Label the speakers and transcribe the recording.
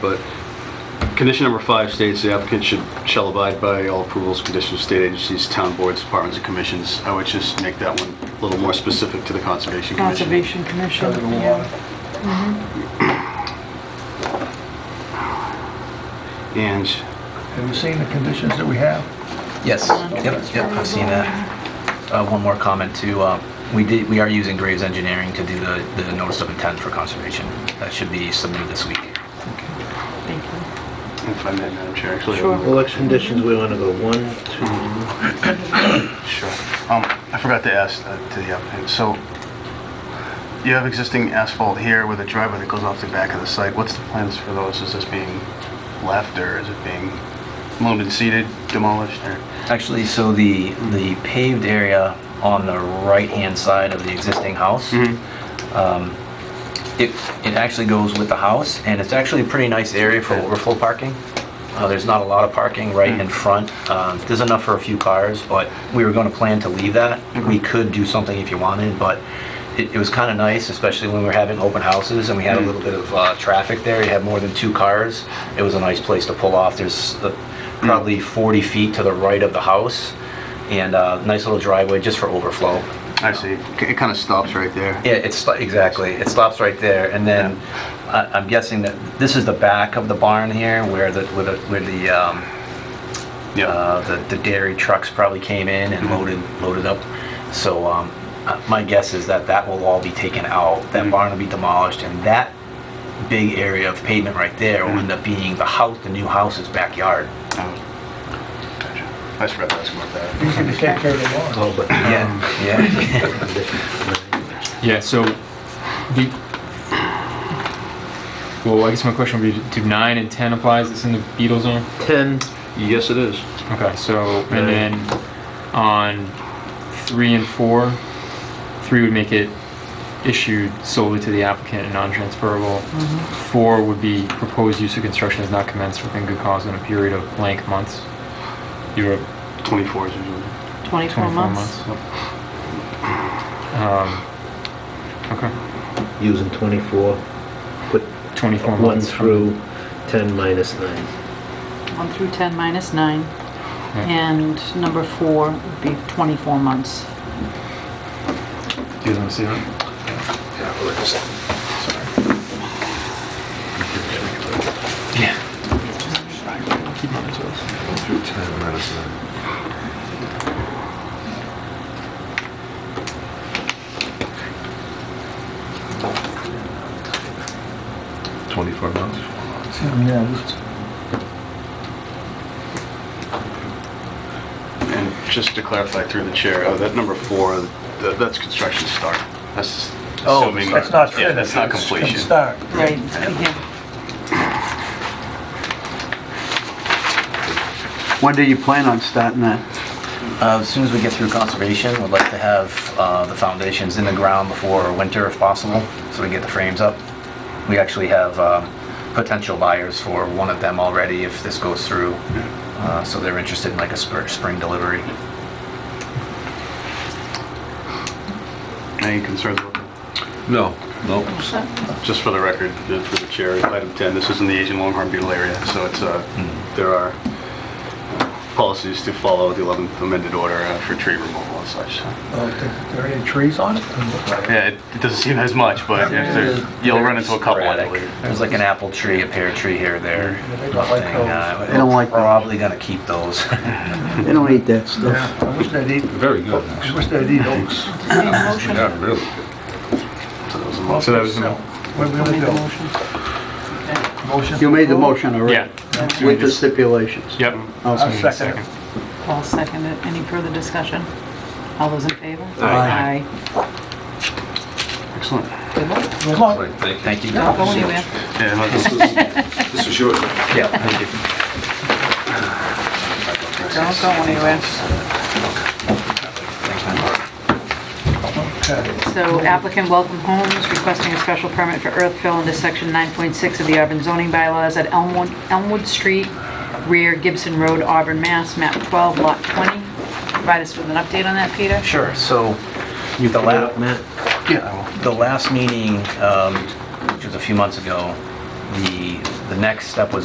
Speaker 1: But condition number five states the applicant should, shall abide by all approvals, conditions of state agencies, town boards, departments, and commissions. I would just make that one a little more specific to the Conservation Commission.
Speaker 2: Conservation Commission.
Speaker 3: Cut it a lot.
Speaker 1: And
Speaker 3: Have you seen the conditions that we have?
Speaker 4: Yes, yep, yep, I've seen that. Uh, one more comment too, uh, we did, we are using Graves Engineering to do the, the notice of intent for conservation. That should be submitted this week.
Speaker 2: Thank you.
Speaker 1: if I may, Madam Chair, actually.
Speaker 2: Sure.
Speaker 5: Election conditions, we want to go one, two,
Speaker 1: Sure. Um, I forgot to ask uh, to the applicant, so you have existing asphalt here with a driveway that goes off the back of the site. What's the plans for those? Is this being left or is it being loaned and seeded, demolished, or?
Speaker 4: Actually, so the, the paved area on the right-hand side of the existing house, um, it, it actually goes with the house, and it's actually a pretty nice area for overflow parking. Uh, there's not a lot of parking right in front. Um, there's enough for a few cars, but we were gonna plan to leave that. We could do something if you wanted, but it, it was kinda nice, especially when we were having open houses and we had a little bit of, uh, traffic there. You had more than two cars. It was a nice place to pull off. There's uh, probably 40 feet to the right of the house and a nice little driveway just for overflow.
Speaker 1: I see. It kind of stops right there.
Speaker 4: Yeah, it's, exactly, it stops right there, and then, I- I'm guessing that, this is the back of the barn here, where the, where the, where the, um, uh, the the dairy trucks probably came in and loaded, loaded up, so, um, uh, my guess is that that will all be taken out, that barn will be demolished, and that big area of pavement right there will end up being the house, the new house's backyard.
Speaker 1: Gotcha. I just forgot to ask about that.
Speaker 3: Can you take care of the lawn?
Speaker 1: Oh,
Speaker 5: all but
Speaker 4: Yeah, yeah.
Speaker 6: Yeah, so the, well, I guess my question would be, do nine and 10 applies that's in the Beetle zone?
Speaker 5: 10,
Speaker 1: Yes, it is.
Speaker 6: Okay, so, and then on three and four, three would make it issued solely to the applicant and non-transferable. Four would be proposed use of construction has not commenced within good cause in a period of blank months. You were
Speaker 1: 24 is usually.
Speaker 2: 24
Speaker 6: 24
Speaker 2: months.
Speaker 6: months. Um, okay,
Speaker 5: using 24, put
Speaker 6: 24 months.
Speaker 5: 1
Speaker 6: from-
Speaker 5: through 10 minus 9.
Speaker 2: 1 through 10 minus 9. And number 4 would be 24 months.
Speaker 6: Do you guys want to see that?
Speaker 3: Yeah, this-
Speaker 1: And just to clarify through the chair, uh, that number four, th- that's construction start. That's
Speaker 4: Oh,
Speaker 1: assuming.
Speaker 3: That's not
Speaker 1: Yeah,
Speaker 3: finished.
Speaker 1: that's not
Speaker 3: It's- it's
Speaker 1: completion.
Speaker 3: start.
Speaker 2: Right, yeah.
Speaker 7: When do you plan on starting that?
Speaker 4: Uh, As soon as we get through conservation, we'd like to have uh, the foundations in the ground before winter if possible, so we can get the frames up. We actually have um, potential buyers for one of them already if this goes through, Uh, so they're interested in like a spr- spring delivery.
Speaker 1: Any concerns about that?
Speaker 8: No, no.
Speaker 1: Just for the record, uh, for the chair, item 10, this is in the Asian Longhorn Beetle area, so it's, uh, there are uh, policies to follow the 11th amended order uh, for tree removal and such. so.
Speaker 3: Uh, Are there any trees on it?
Speaker 1: Yeah, it it doesn't seem as much, but if there's- you'll run into a couple, I
Speaker 4: Sporadic.
Speaker 1: believe.
Speaker 4: There's like an apple tree, a pear tree here, there.
Speaker 3: They don't like
Speaker 4: nothing,
Speaker 3: those.
Speaker 4: uh,
Speaker 7: They don't like those.
Speaker 4: Probably gonna keep those.
Speaker 7: They don't eat that
Speaker 3: Yeah,
Speaker 7: stuff.
Speaker 3: I wish they'd eat,
Speaker 8: Very good.
Speaker 3: I wish they'd eat oaks.
Speaker 8: Yeah, really good.
Speaker 1: So those are most-
Speaker 6: So that was the-
Speaker 3: What are we gonna do? Motion?
Speaker 7: You made the motion
Speaker 6: Yeah.
Speaker 7: already, with the stipulations.
Speaker 6: Yep.
Speaker 7: I'll
Speaker 3: I'll
Speaker 7: second.
Speaker 3: second it.
Speaker 2: Paul seconded. Any further discussion? All those in favor?
Speaker 7: Aye.
Speaker 1: Excellent.
Speaker 2: Aye. Good luck.
Speaker 3: As long-
Speaker 8: Great, thank you.
Speaker 4: Thank you.
Speaker 2: Don't go anywhere.
Speaker 1: Yeah, well, this is-
Speaker 8: This is yours.
Speaker 4: Yeah, thank you.
Speaker 2: Don't go anywhere.
Speaker 3: okay.
Speaker 2: So applicant Welcome Homes requesting a special permit for earth fill into section 9.6 of the Auburn zoning bylaws at Elmwood, Elmwood Street, rear Gibson Road, Auburn, Mass, map 12, lot 20. Provide us with an update on that, Peter?
Speaker 4: Sure, so the last,
Speaker 5: Matt?
Speaker 4: the last meeting, um, which was a few months ago, the, the next step was